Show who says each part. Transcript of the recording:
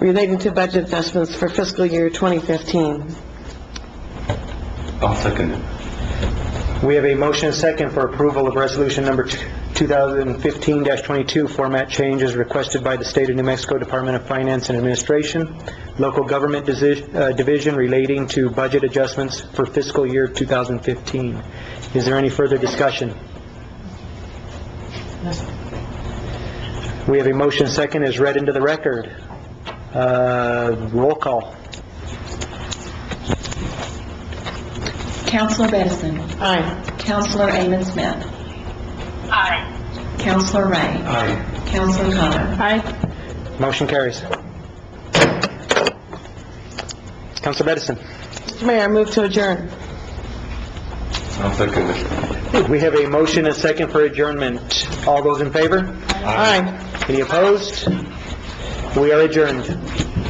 Speaker 1: relating to budget adjustments for fiscal year 2015.
Speaker 2: I'll second it.
Speaker 3: We have a motion and second for approval of resolution number 2015-22, format changes requested by the State of New Mexico Department of Finance and Administration, local government Desi- uh, division relating to budget adjustments for fiscal year 2015. Is there any further discussion? We have a motion and second as read into the record. Uh, Roll call.
Speaker 4: Counselor Edison. Aye. Counselor Amon Smith. Aye. Counselor Ray.
Speaker 2: Aye.
Speaker 4: Counselor Connor. Aye.
Speaker 3: Motion carries. Counsel Edison.
Speaker 1: Mr. Mayor, I move to adjourn.
Speaker 2: I'll second it.
Speaker 3: We have a motion and second for adjournment. All those in favor?
Speaker 1: Aye.
Speaker 3: Any opposed? We are adjourned.